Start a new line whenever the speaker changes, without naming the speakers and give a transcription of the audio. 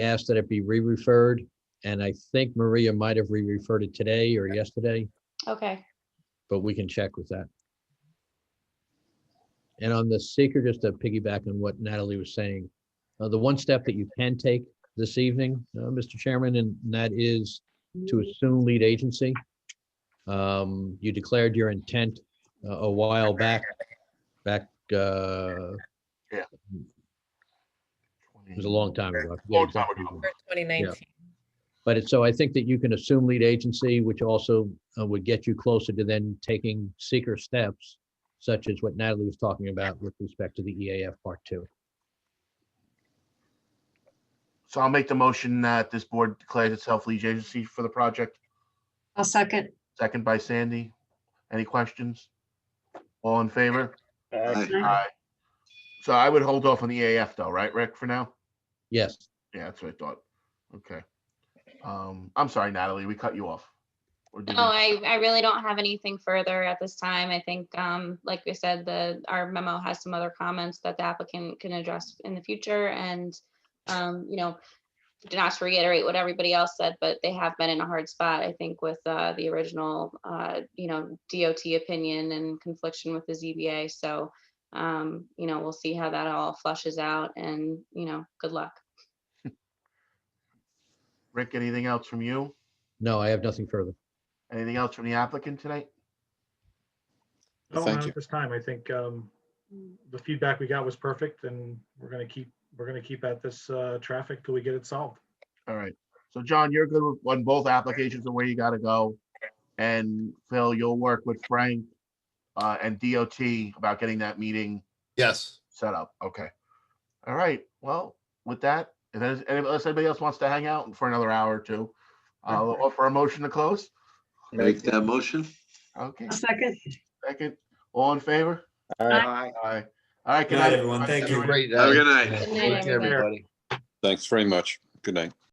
asked that it be re-referred, and I think Maria might have re-referred it today or yesterday,
Okay,
but we can check with that. And on the seeker, just to piggyback on what Natalie was saying, uh, the one step that you can take this evening, uh, Mr. Chairman, and that is to assume lead agency. Um, You declared your intent uh, a while back, back, uh, it was a long time ago. I forget
Long time
exactly.
ago.
For 2019.
But it's, so I think that you can assume lead agency, which also uh, would get you closer to then taking seeker steps, such as what Natalie was talking about with respect to the EAF Part Two.
So I'll make the motion that this board declares itself lead agency for the project.
I'll second.
Second by Sandy. Any questions? All in favor? Aye. So I would hold off on the AF though, right, Rick, for now?
Yes,
Yeah, that's what I thought. Okay. Um, I'm sorry, Natalie, we cut you off. Or did
no,
we-
Oh, I, I really don't have anything further at this time. I think, um, like we said, the, our memo has some other comments that the applicant can address in the future and, um, you know, not to reiterate what everybody else said, but they have been in a hard spot, I think, with, uh, the original, uh, you know, DOT opinion and confliction with the ZBA. So, um, you know, we'll see how that all flushes out and, you know, good luck.
Rick, anything else from you?
no, I have nothing further.
Anything else from the applicant tonight?
No,
Thank
not
you.
at this time. I think um, the feedback we got was perfect and we're going to keep, we're going to keep at this uh, traffic till we get it solved.
All right. So John, you're good with- on both applications and where you gotta go. And Phil, you'll work with Frank uh, and DOT about getting that meeting
Yes.
set up. Okay. All right. Well, with that, if there's, and unless anybody else wants to hang out for another hour or two, I'll offer a motion to close.
Make that motion.
Okay,
I'll second.
second. All in favor?
Aye.
Aye. All right.
Good night, everyone. Thank you.
Have a good
Good
night.
night, everybody.
Thanks very much. Good night.